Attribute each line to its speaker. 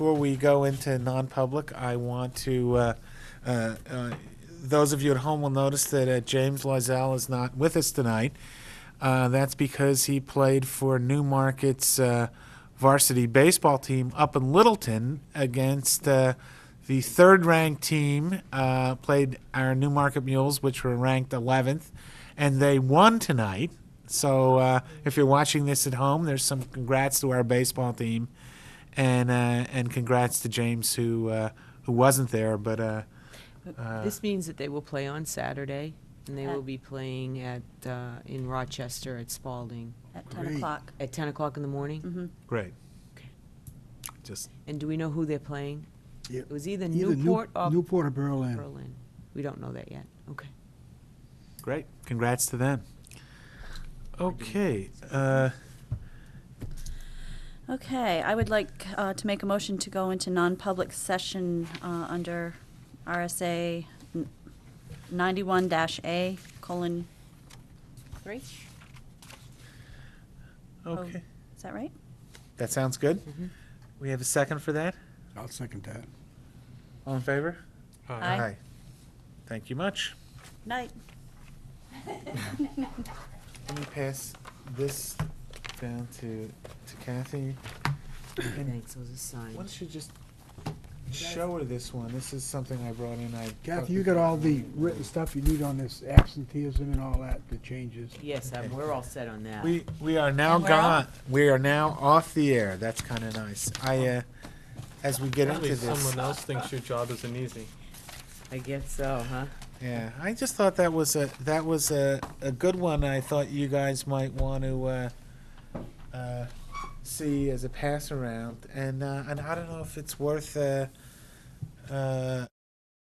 Speaker 1: Before we go into non-public, I want to, uh, uh, uh, those of you at home will notice that uh, James Loizal is not with us tonight. Uh, That's because he played for Newmarket's uh, varsity baseball team up in Littleton against uh, the third-ranked team, uh, played our Newmarket Mules, which were ranked 11th, and they won tonight. So uh, if you're watching this at home, there's some congrats to our baseball team and uh, and congrats to James who uh, who wasn't there, but uh,
Speaker 2: This means that they will play on Saturday, and they
Speaker 3: At-
Speaker 2: will be playing at, uh, in Rochester at Spalding
Speaker 3: At 10 o'clock. Mm-hmm.
Speaker 2: at 10 o'clock in the morning.
Speaker 1: great. Just
Speaker 2: And do we know who they're playing?
Speaker 4: Yeah.
Speaker 2: It was either
Speaker 4: Either New-
Speaker 2: Newport or
Speaker 4: Newport or Berlin.
Speaker 2: Berlin. We don't know that yet. Okay.
Speaker 1: great. Congrats to them. Okay, uh,
Speaker 3: Okay, I would like uh, to make a motion to go into non-public session uh, under RSA 91-A colon 3.
Speaker 1: okay.
Speaker 3: Is that right?
Speaker 1: That sounds good. We have a second for that.
Speaker 4: I'll second that.
Speaker 1: All in favor?
Speaker 3: Aye.
Speaker 1: Thank you much.
Speaker 3: Night.
Speaker 1: Let me pass this down to to Kathy. And
Speaker 2: Thanks, those are
Speaker 1: why
Speaker 2: signed.
Speaker 1: don't you just show her this one? This is something I brought in. I
Speaker 4: Kathy, you got all the written stuff you need on this absenteeism and all that, the changes.
Speaker 2: Yes, uh, we're all set on that.
Speaker 1: We, we are now
Speaker 3: And we're off.
Speaker 1: gone. We are now off the air. That's kind of nice. I, uh, as we get
Speaker 5: Apparently
Speaker 1: into this,
Speaker 5: someone else thinks your job isn't easy.
Speaker 2: I guess so, huh?
Speaker 1: yeah, I just thought that was a, that was a, a good one. I thought you guys might want to, uh, uh, see as a pass around. And, uh, and I don't know if it's worth, uh, uh,